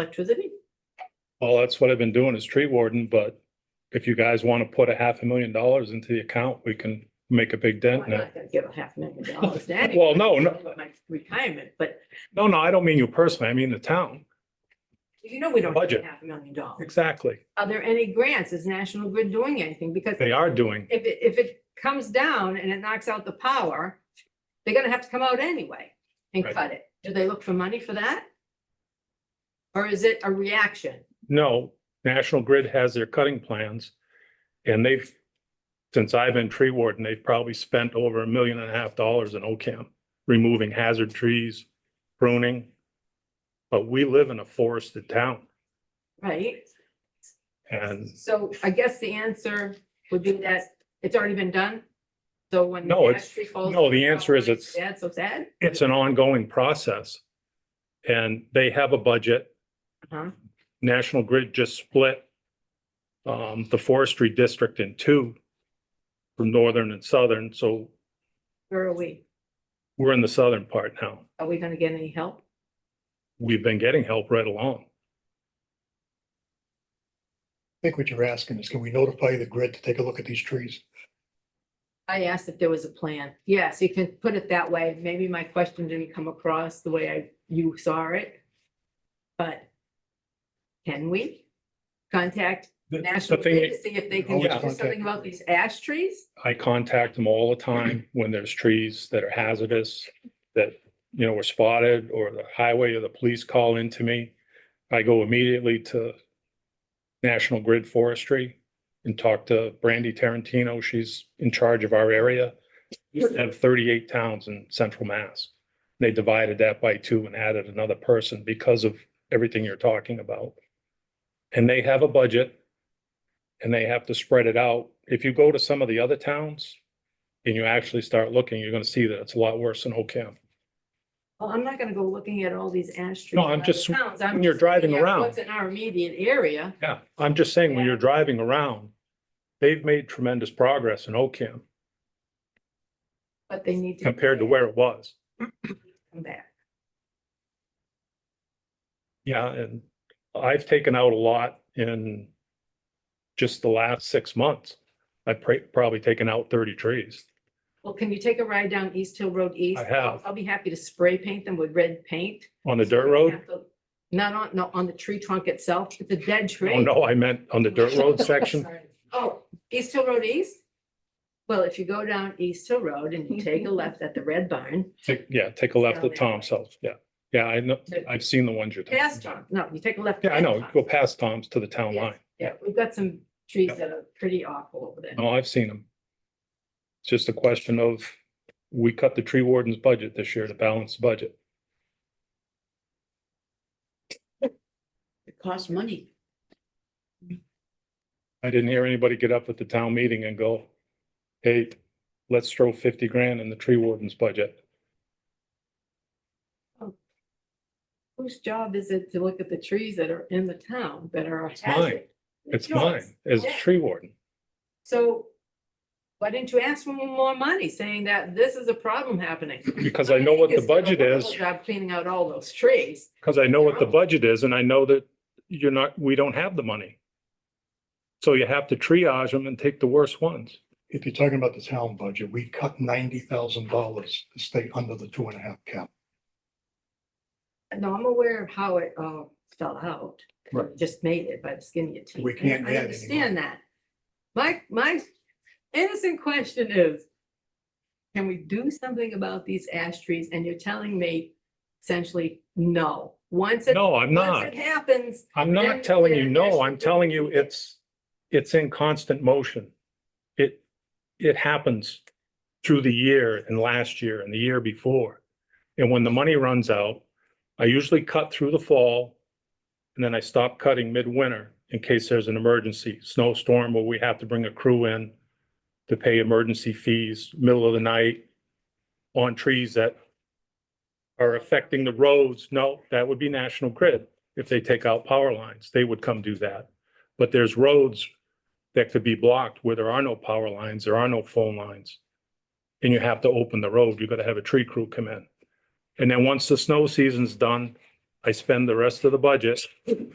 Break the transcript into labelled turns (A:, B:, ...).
A: electricity?
B: Well, that's what I've been doing is tree warden, but if you guys want to put a half a million dollars into the account, we can make a big
A: Well,
B: dent
A: I'm
B: in it.
A: not gonna give a half million dollars to anyone.
B: Well, no, no,
A: for My retirement, but
B: no, no, I don't mean you personally. I mean the town.
A: you know, we don't have a
B: Budget.
A: half a million dollars.
B: Exactly.
A: Are there any grants? Is National Grid doing anything? Because
B: They are doing.
A: if it, if it comes down and it knocks out the power, they're gonna have to come out anyway and
B: Right.
A: cut it. Do they look for money for that? Or is it a reaction?
B: No, National Grid has their cutting plans. And they've, since I've been tree warden, they've probably spent over a million and a half dollars in OCAM, removing hazard trees, pruning. But we live in a forested town
A: Right?
B: and
A: So I guess the answer would be that it's already been done. So when.
B: No,
A: the
B: it's-
A: ash tree falls-
B: no, the answer is it's-
A: Sad, so sad.
B: it's an ongoing process. And they have a budget.
A: Uh-huh.
B: National Grid just split um, the forestry district in two from northern and southern. So
A: Where are we?
B: we're in the southern part now.
A: Are we gonna get any help?
B: We've been getting help right along.
C: I think what you're asking is can we notify the grid to take a look at these trees?
A: I asked if there was a plan. Yes, you can put it that way. Maybe my question didn't come across the way I, you saw it. But can we contact
B: The- The
A: National
B: thing,
A: Grid to
B: is,
A: see if they can
C: Always
A: do
C: contact
A: something
C: the
A: about
C: grid.
A: these ash trees?
B: I contact them all the time when there's trees that are hazardous that, you know, were spotted or the highway or the police call into me. I go immediately to National Grid Forestry and talk to Brandy Tarantino. She's in charge of our area. We have thirty-eight towns in central Mass. They divided that by two and added another person because of everything you're talking about. And they have a budget and they have to spread it out. If you go to some of the other towns and you actually start looking, you're gonna see that it's a lot worse than Ocam.
A: Well, I'm not gonna go looking at all these ash trees.
B: No,
A: in
B: I'm
A: other
B: just-
A: towns. I'm
B: when you're
A: just
B: driving
A: looking at
B: around.
A: What's in our immediate area?
B: Yeah, I'm just saying, when
A: Yeah.
B: you're driving around, they've made tremendous progress in Ocam
A: But they need to.
B: compared to where it was.
A: Come back.
B: Yeah, and I've taken out a lot in just the last six months. I've pra- probably taken out thirty trees.
A: Well, can you take a ride down East Hill Road East?
B: I have.
A: I'll be happy to spray paint them with red paint.
B: On the dirt
A: So we
B: road?
A: have to- Not on, no, on the tree trunk itself, it's a dead tree.
B: Oh, no, I meant on the dirt road section.
A: Oh, East Hill Road East? Well, if you go down East Hill Road and you take a left at the Red Barn,
B: Take- Yeah, take a left at
A: Down that way.
B: Tom's house. Yeah, yeah, I know, I've seen the ones you're. talking
A: past
B: about.
A: Tom, no, you take a left.
B: Yeah, I
A: past
B: know,
A: Tom's.
B: go past Tom's to the town
A: Yeah.
B: line.
A: Yeah, we've got some trees that are pretty awful over there.
B: No, I've seen them. It's just a question of, we cut the tree warden's budget this year to balance the budget.
D: It costs money.
B: I didn't hear anybody get up at the town meeting and go, hey, let's throw fifty grand in the tree warden's budget.
A: Whose job is it to look at the trees that are in the town that are a
B: It's mine.
A: hazard?
B: It's
A: yours.
B: mine as a
A: Yeah.
B: tree warden.
A: So why didn't you ask for more money, saying that this is a problem happening?
B: Because I know what the
A: It's done a
B: budget is.
A: wonderful Job cleaning out all those trees.
B: Because I know what the budget is and I know that you're not, we don't have the money. So you have to triage them and take the worst ones.
C: If you're talking about the town budget, we cut ninety thousand dollars to stay under the two and a half cap.
A: No, I'm aware of how it all fell out.
C: Right.
A: Just made it by the skin of your teeth.
C: We can't
A: I
C: add
A: understand that. My, my innocent question is, can we do something about these ash trees? And you're telling me essentially, no. Once it,
B: No, I'm
A: once
B: not.
A: it happens,
B: I'm
A: Then
B: not telling you
A: there-
B: no.
A: there's-
B: I'm telling you it's, it's in constant motion. It, it happens through the year and last year and the year before. And when the money runs out, I usually cut through the fall. And then I stop cutting midwinter in case there's an emergency snowstorm where we have to bring a crew in to pay emergency fees, middle of the night on trees that are affecting the roads. No, that would be National Grid if they take out power lines, they would come do that. But there's roads that could be blocked where there are no power lines, there are no phone lines. And you have to open the road, you gotta have a tree crew come in. And then once the snow season's done, I spend the rest of the budget